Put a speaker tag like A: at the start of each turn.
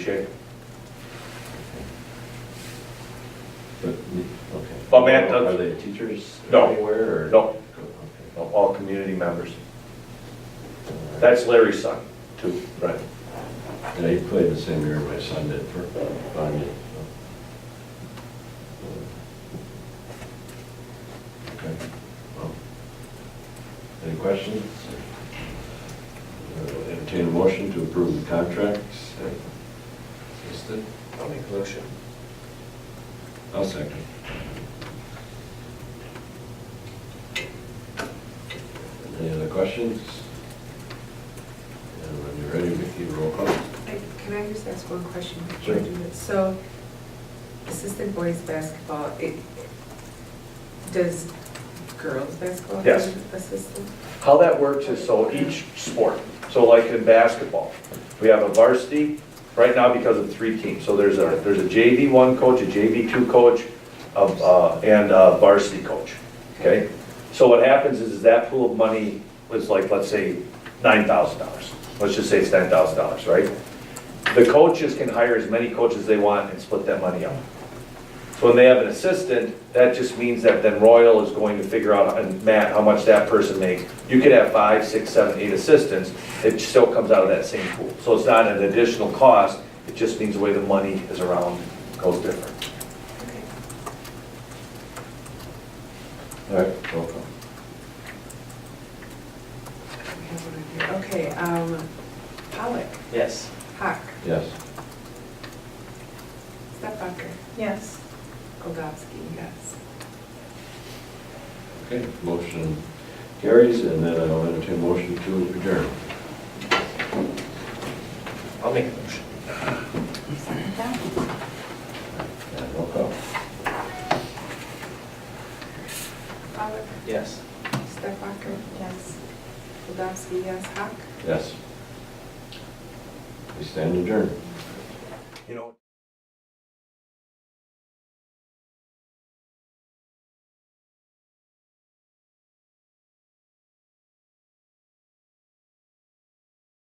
A: shape.
B: But, okay.
A: Well, Matt does-
B: Are they teachers
A: No.
B: anywhere or?
A: No.
B: Okay.
A: of all community members. That's Larry's son, too.
B: Right. And he played the same year my son did for Bonnie. Okay. Well, Any questions? Uh, Entertain a motion to approve the contracts. as listed.
A: I'll make a motion.
B: I'll second. Any other questions? And when you're ready, Vicki, roll call.
C: I- Can I just ask one question? before
B: Sure.
C: I do this? So assistant boys basketball, it, does girls basketball? have
A: Yes.
C: an Assistant?
A: How that works is so each sport, so like in basketball, we have a varsity, right now because of three teams. So there's a, there's a JV one coach, a JV two coach, a- uh, and a varsity coach, okay? So what happens is that pool of money was like, let's say, nine thousand dollars. Let's just say it's ten thousand dollars, right? The coaches can hire as many coaches they want and split that money up. So when they have an assistant, that just means that then Royal is going to figure out, and Matt, how much that person makes. You could have five, six, seven, eight assistants, it still comes out of that same pool. So it's not an additional cost, it just means the way the money is around goes different.
C: Okay.
B: All right, roll call.
C: I have one in here. Okay, um, Pollock,
D: Yes.
C: Hawk,
B: Yes.
C: Stepbacher,
D: Yes.
C: Goldowski, yes.
B: Okay, motion carries, and then I'll entertain a motion to adjourn.
D: I'll make a motion.
B: And roll call.
C: Pollock,
D: Yes.
C: Stepbacher. Yes. Goldowski, yes. Hawk.
B: Yes. We stand adjourned.
A: You know.